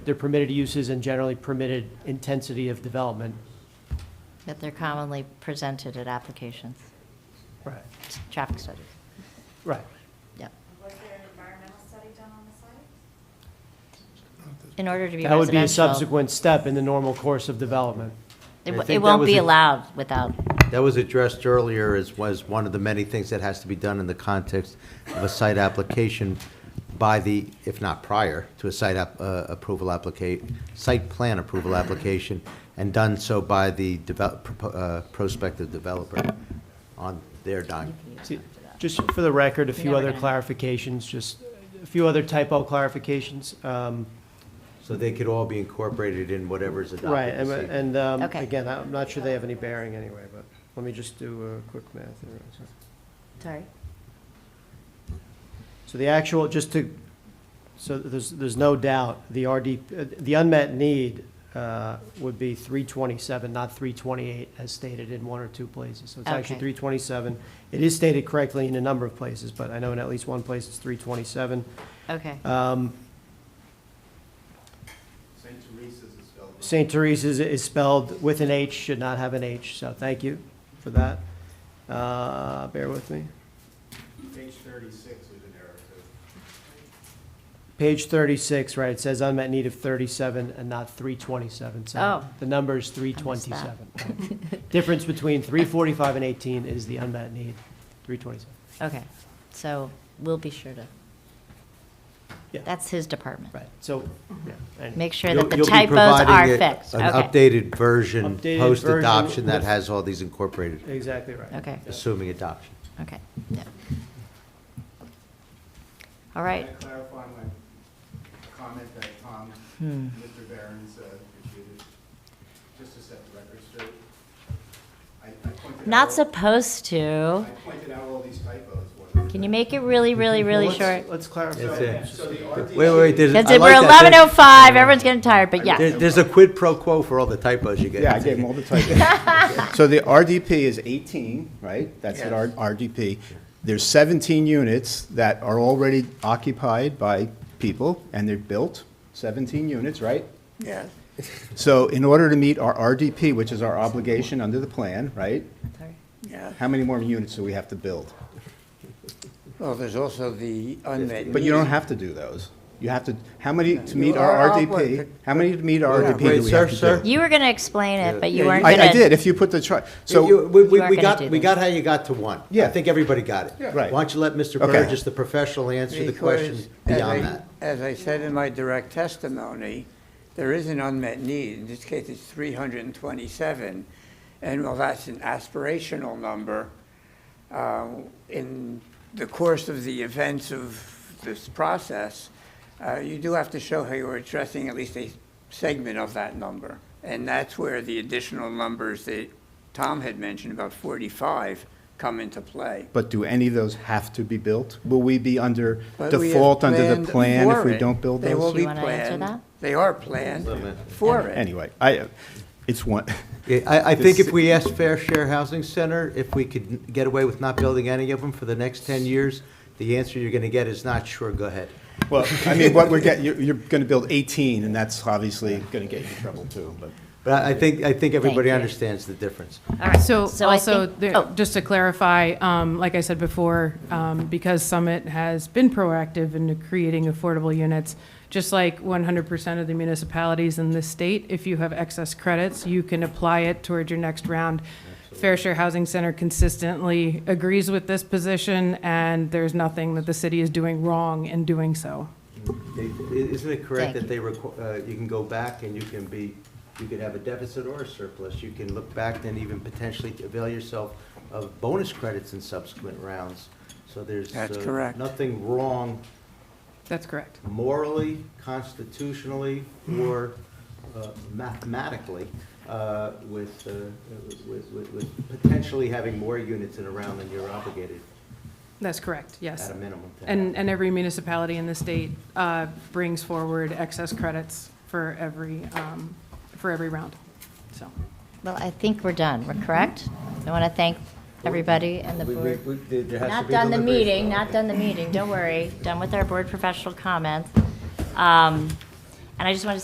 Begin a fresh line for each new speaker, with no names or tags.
their permitted uses and generally permitted intensity of development.
that they're commonly presented at applications,
Right.
traffic studies.
Right.
Yep.
Was there an environmental study done on the site?
In order to be
That would be a
residential,
subsequent step in the normal course of development.
it
I
w-
think
it
that
won't
was
be
a-
allowed without,
That was addressed earlier as was one of the many things that has to be done in the context of a site application by the, if not prior, to a site app, uh, approval applica, site plan approval application, and done so by the develop, propo- uh, prospective developer on their dime.
See, Just for the record, a few
never
other
gonna-
clarifications, just a few other typo clarifications. Um,
So they could all be incorporated in whatever's adopted.
Right, and,
this evening.
and, um,
Okay.
again, I'm not sure they have any bearing anyway, but let me just do a quick math here.
sorry,
So the actual, just to, so there's, there's no doubt, the RD, uh, the unmet need uh, would be 327, not 328, as stated in one or two places. So it's actually
Okay.
327. It is stated correctly in a number of places, but I know in at least one place it's 327.
okay.
Um,
St. Teresa's is spelled. wrong.
St. Teresa's is spelled with an H, should not have an H, so thank you for that. Uh, Bear with me.
Page thirty-six was an error too.
Page 36, right, it says unmet need of 37 and not 327. So
Oh.
The number is
I missed that.
327. right. Difference between 345 and 18 is the unmet need, 327.
Okay, so we'll be sure to.
Yeah.
That's his department.
Right, so, yeah. and-
Make sure
You'll-
that the
you'll be
typos
providing
are
it-
fixed.
An
Okay,
updated version,
Updated version
post-adoption, that
with-
has all these incorporated,
Exactly right.
Okay.
assuming adoption.
okay, yeah. All right,
Can I clarify my comment that Tom,
Hmm.
Mr. Barron's, uh, refuted? Just to set the record straight. I, I pointed out.
not supposed to.
I pointed out all these typos. wasn't
Can
I?
you make it really, really, really
Well, let's-
short?
Let's
That's
clarify.
it.
So the RDC.
Wait, wait, there's.
Because
I like
we're
that. There-
eleven oh five, everyone's getting tired, but
There-
yeah,
There's a quid pro quo for all the typos you get.
Yeah, I gave them all the typos. So the RDP is 18, right? That's what our RDP. There's 17 units that are already occupied by people, and they're built, 17 units, right?
Yeah.
So in order to meet our RDP, which is our obligation under the plan, right?
Sorry.
How many more units do we have to build?
Well, there's also the unmet need.
But you don't have to do those. You have to, how many to meet
You
our
are
RDP?
obligated.
How many to meet our
Yeah.
RDP do
Wait,
we
sir,
have to
sir.
do?
you were gonna explain it, but you
Yeah,
weren't gonna.
I, I did, if you put the chart,
So,
so,
we, we,
You are
we
gonna
got,
do
we
this.
got how you got to one. I
Yeah.
think everybody got it.
Right.
Why don't you let Mr.
Okay.
Burgess, the professional, answer the question
Because, as
beyond
I-
that?
As I said in my direct testimony, there is an unmet need. In this case, it's 327. And while that's an aspirational number, uh, in the course of the events of this process, uh, you do have to show how you're addressing at least a segment of that number. And that's where the additional numbers that Tom had mentioned, about 45, come into play.
but do any of those have to be built? Will we be under
But we have
default under the
planned
plan if
for
we
it.
don't build
They will
those?
Do
be
you wanna answer that?
planned, they are planned
Limit.
for it.
Anyway, I, uh, it's one,
Yeah, I, I think
This-
if we ask Fair Share Housing Center, if we could get away with not building any of them for the next ten years, the answer you're gonna get is not sure, go ahead.
well, I mean, what we're getting, you're, you're gonna build 18, and that's obviously gonna get you in trouble too, but.
But I I think, I think everybody
you.
understands the difference.
All right,
So
I
also,
think-
there-
oh,
just to clarify, um, like I said before, um, because Summit has been proactive in creating affordable units, just like 100% of the municipalities in this state, if you have excess credits, you can apply it toward your next round. Fair Share Housing Center consistently agrees with this position, and there's nothing that the city is doing wrong in doing so.
They- i- Isn't it correct that
Thank
they, requ- uh, you can go back and you can be, you could have a deficit or a surplus? You can look back and even potentially avail yourself of bonus credits in subsequent rounds. So there's.
That's
uh,
correct.
Nothing wrong
That's correct.
morally, constitutionally, or uh, mathematically uh, with, uh, with, with- with potentially having more units in a round than you're obligated
That's correct, yes.
at a minimum. to have.
And, and every municipality in the state uh, brings forward excess credits for every, um, for every round, so.
Well, I think we're done, we're correct? I want to thank everybody and the
We- we-
board.
we- there- there has to
Not
be
done the
deliberation.
meeting, not done the meeting, don't worry, done with our board professional comments. Um, And I just want to